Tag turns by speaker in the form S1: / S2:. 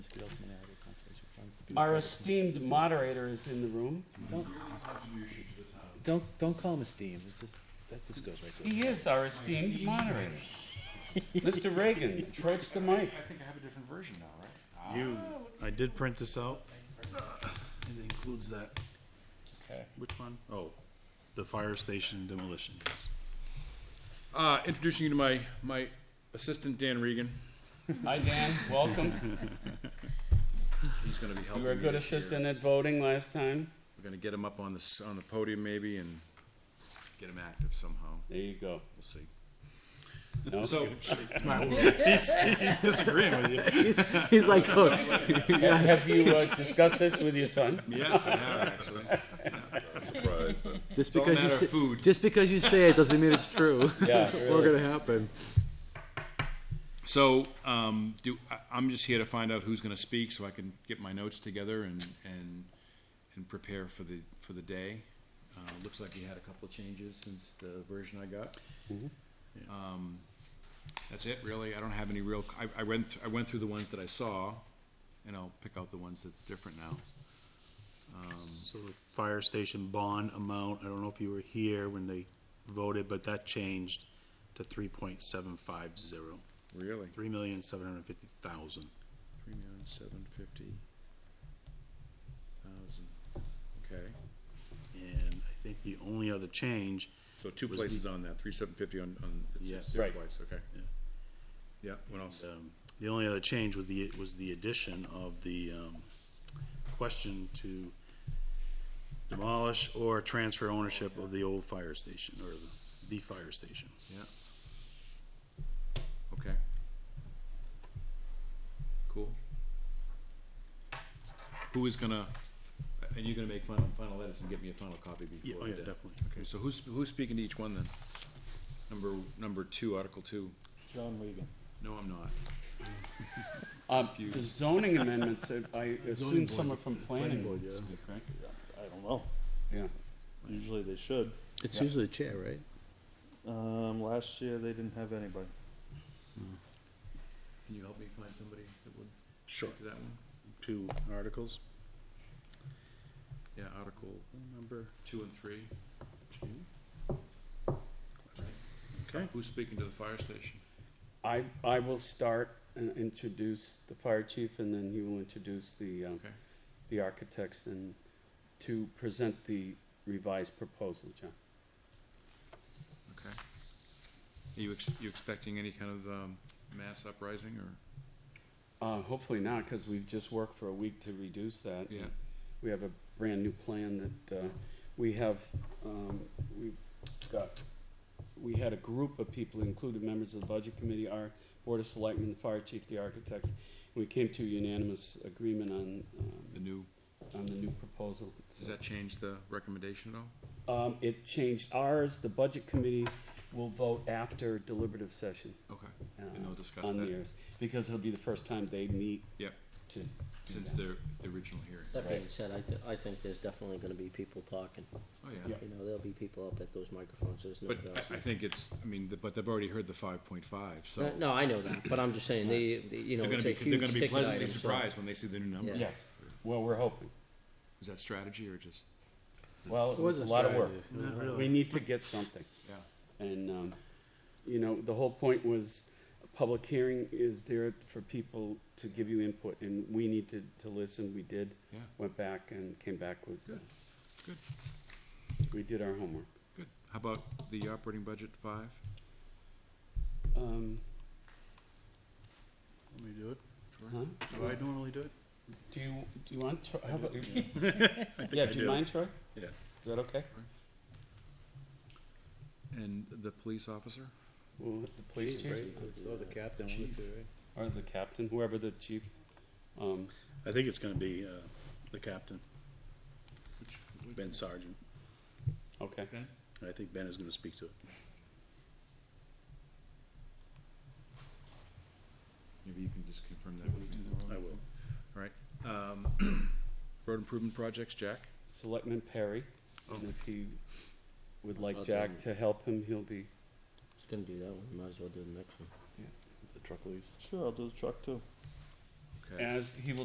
S1: Our esteemed moderator is in the room.
S2: Don't, don't call him esteemed, it's just, that just goes right to.
S1: He is our esteemed moderator. Mr. Reagan, approach the mic.
S3: I think I have a different version now, right?
S4: You, I did print this out. It includes that.
S3: Okay.
S4: Which one? Oh, the fire station demolition, yes.
S3: Uh, introducing you to my, my assistant, Dan Regan.
S1: Hi, Dan, welcome.
S3: He's gonna be
S1: You
S3: helping me
S1: were a good
S3: this year.
S1: assistant at voting last time.
S3: We're gonna get him up on the, s- on the podium maybe and get him active somehow.
S1: There you go.
S3: We'll see.
S1: No?
S3: So,
S4: He's, he's disagreeing with you.
S2: He's like, look,
S1: Have you uh, discussed this with your son?
S3: yes, I have actually. Surprised.
S2: just
S3: all a
S2: because you
S3: matter of
S2: say,
S3: food.
S2: just because you say it doesn't mean it's true.
S1: Yeah,
S2: We're
S1: really.
S2: gonna happen.
S3: So, um, do, I, I'm just here to find out who's gonna speak so I can get my notes together and, and, and prepare for the, for the day. Uh, looks like we had a couple of changes since the version I got. Um, that's it, really. I don't have any real, I, I went, I went through the ones that I saw and I'll pick out the ones that's different now.
S4: So the fire station bond amount, I don't know if you were here when they voted, but that changed to three point seven five zero,
S3: Really?
S4: three million seven hundred fifty thousand.
S3: Three million, seven fifty thousand, okay.
S4: And I think the only other change,
S3: So two
S4: Was the-
S3: places on that, three seven fifty on, on. it's
S4: Yes.
S3: just
S1: Right.
S3: Twice, okay.
S4: Yeah.
S3: Yeah, what else?
S4: um, the only other change was the, was the addition of the, um, question to demolish or transfer ownership of the old fire station, or the- the fire station.
S3: Okay. Cool. Who is gonna, and you're gonna make final, final edits and get me a final copy
S4: Yeah,
S3: before
S4: oh
S3: the
S4: yeah,
S3: day?
S4: definitely.
S3: Okay, so who's, who's speaking to each one then? Number, number two, Article two.
S2: John Regan.
S3: No, I'm not.
S1: Uh, The zoning amendments, uh, I assume
S4: Zoning
S1: some
S4: board.
S1: are from planning.
S2: yeah,
S3: Okay.
S2: I don't know,
S1: Yeah.
S2: usually they should.
S5: It's usually the chair, right?
S2: Um, last year they didn't have anybody.
S3: Can you help me find somebody that would
S4: Sure.
S3: do that one?
S4: Two articles,
S3: Yeah, Article
S4: number
S3: two and three.
S4: two. Okay.
S3: Who's speaking to the fire station?
S1: I, I will start and introduce the fire chief, and then he will introduce the, um,
S3: Okay.
S1: the architects and to present the revised proposal, John.
S3: Okay. Are you, ex- you expecting any kind of, um, mass uprising or?
S1: Uh, hopefully not, because we've just worked for a week to reduce that.
S3: Yeah.
S1: We have a brand new plan that, uh, we have, um, we've got, we had a group of people, including members of the budget committee, our board of selectmen, the fire chief, the architects. We came to unanimous agreement on,
S3: The
S1: um,
S3: new,
S1: on the new proposal.
S3: does that change the recommendation at all?
S1: Um, it changed ours, the budget committee will vote after deliberative session.
S3: Okay,
S1: uh,
S3: and they'll discuss
S1: on
S3: that,
S1: theirs, because it'll be the first time they meet.
S3: Yep.
S1: To,
S3: since their, the original hearing.
S5: That being said, I, th- I think there's definitely gonna be people talking.
S3: Oh, yeah.
S1: Yeah.
S5: You know, there'll be people up at those microphones, there's no
S3: But
S5: doubt.
S3: I, I think it's, I mean, the- but they've already heard the five point five, so
S5: No, No, I know that, but I'm just saying, the, the- you know,
S3: they're gonna
S5: it's
S3: be,
S5: a
S3: they're
S5: huge
S3: gonna be
S5: ticket
S3: pleasantly
S5: item, so.
S3: surprised when they see the new number.
S5: Yeah.
S1: yes, well, we're hoping.
S3: Is that strategy or just,
S1: Well, it was a lot of work.
S4: Not
S1: We
S4: really.
S1: need to get something.
S3: yeah,
S1: And, um, you know, the whole point was, a public hearing is there for people to give you input, and we need to, to listen, we did.
S3: Yeah.
S1: Went back and came back with.
S3: Good, good.
S1: We did our homework.
S3: good. How about the operating budget five?
S1: Um,
S4: Let me do it.
S1: huh?
S4: Do I normally do it?
S1: Do you, do you want, Tro- how about, yeah, do you
S4: do.
S1: mind, Troy?
S3: Yeah.
S1: Is that okay?
S3: And the police officer?
S1: Well, the police chief,
S2: Or the captain, one of the two, right?
S1: or the captain, whoever the chief, um,
S4: I think it's gonna be, uh, the captain, Ben Sargent.
S1: okay.
S3: Ben?
S4: I think Ben is gonna speak to it.
S3: Maybe you can just confirm that with me.
S4: I will.
S3: Um, road improvement projects, Jack?
S1: Selectman Perry, and if he would like
S5: I'll
S1: Jack
S5: do it.
S1: to help him, he'll be,
S5: Just gonna do that one, might as well do the next one.
S2: Sure, I'll do the truck too.
S3: Okay. Okay.
S1: Uh, as he will